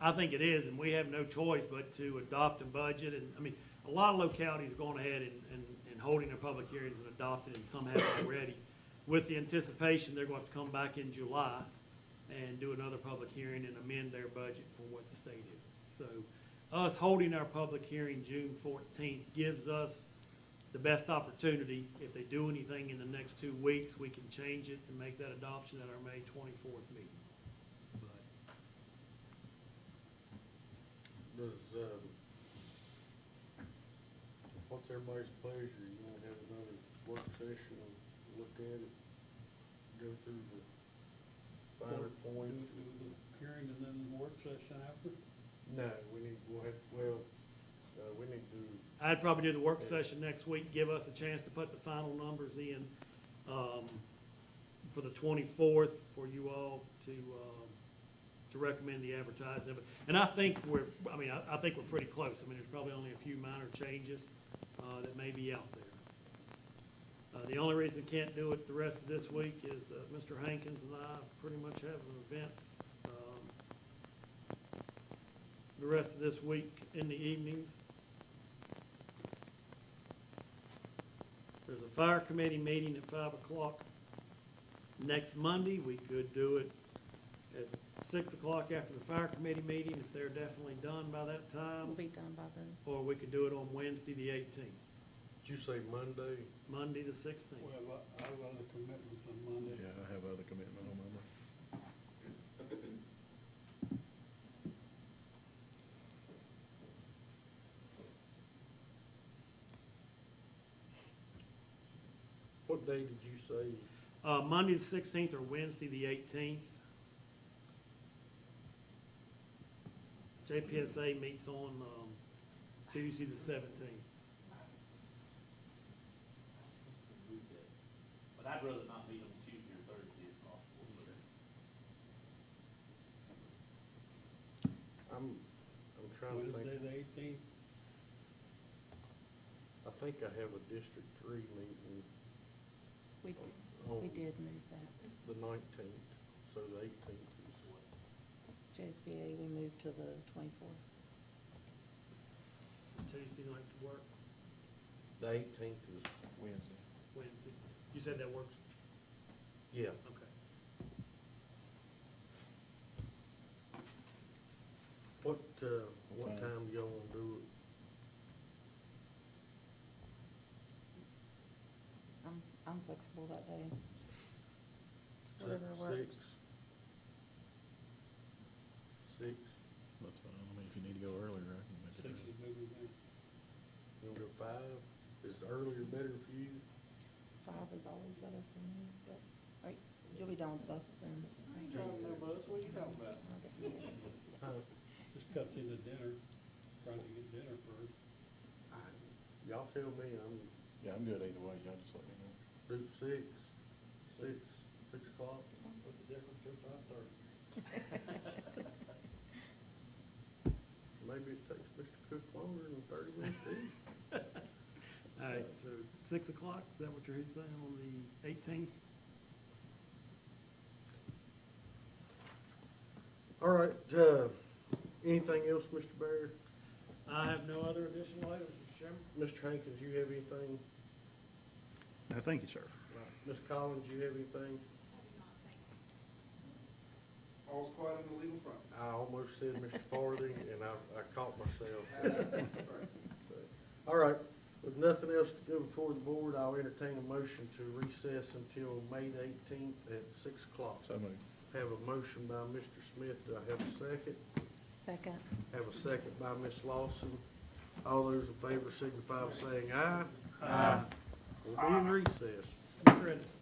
I think it is, and we have no choice but to adopt a budget, and, I mean, a lot of localities are going ahead and, and, and holding their public hearings and adopting, and some have already, with the anticipation they're going to have to come back in July and do another public hearing and amend their budget for what the state is. So, us holding our public hearing June fourteenth gives us the best opportunity. If they do anything in the next two weeks, we can change it and make that adoption at our May twenty-fourth meeting. But Does, um, what's everybody's pleasure? You wanna have another work session and look at it? Go through the finer Do points? do the hearing and then the work session after? No, we need, we'll have, well, uh, we need to, I'd probably do the work session next week, give us a chance to put the final numbers in, um, for the twenty-fourth, for you all to, um, to recommend the advertising of it. And I think we're, I mean, I, I think we're pretty close. I mean, there's probably only a few minor changes, uh, that may be out there. Uh, the only reason can't do it the rest of this week is, uh, Mr. Hankins and I pretty much have an event, um, the rest of this week in the evenings. There's a fire committee meeting at five o'clock next Monday. We could do it at six o'clock after the fire committee meeting, if they're definitely done by that Will time. be Um, done by then. Or we could do it on Wednesday, the eighteenth, did you say Monday? Monday, the sixteenth. We have, o- I have other commitments on Monday. Yeah, I have other commitment on Monday. What day did you say? Uh, Monday, the sixteenth, or Wednesday, the eighteenth. JPSA meets on, um, Tuesday, the seventeenth. But I'd rather not be on Tuesday or Thursday if possible. I'm, I'm trying to think. Wednesday, the eighteenth, I think I have a District Three meeting We, we on did move that. the nineteenth, so the eighteenth is what? JSBA, we moved to the twenty-fourth. Tuesday night to work, The eighteenth is, Wednesday. Wednesday. You said that works? yeah, Okay. what, uh, what Okay. time do y'all wanna do it? I'm, I'm flexible that day. Is that Whatever works. Six? Six, That's fine. I mean, if you need to go earlier, I can make it. six early. is maybe then. you wanna go five? Is earlier better for you? Five is always better for me, but, right, you'll be done with us then. right? Oh, what are you talking about? I'll get you there. Huh? Just cuts into dinner, try to get dinner first. I- Y'all tell me, I'm, Yeah, I'm good either way. Y'all just let me know. do six, six, six o'clock? What's the difference to five thirty? Maybe it takes Mr. Cook longer than thirty minutes to eat. All right, so six o'clock, is that what you're saying, on the eighteenth? All right, uh, anything else, Mr. Barrett? I have no other additional items, Mr. Chairman. Mr. Hankins, you have anything? No, thank you, sir. Ms. Collins, you have anything? All's quiet on the legal front. I almost said Mr. Farthing, and I, I caught myself. So, All right, with nothing else to go before the board, I'll entertain a motion to recess until May the eighteenth at six o'clock. So moved. Have a motion by Mr. Smith, do I have a second? Second. Have a second by Ms. Lawson. All those in favor signify by saying aye. Aye. We'll be in recess. Mr. Ennis?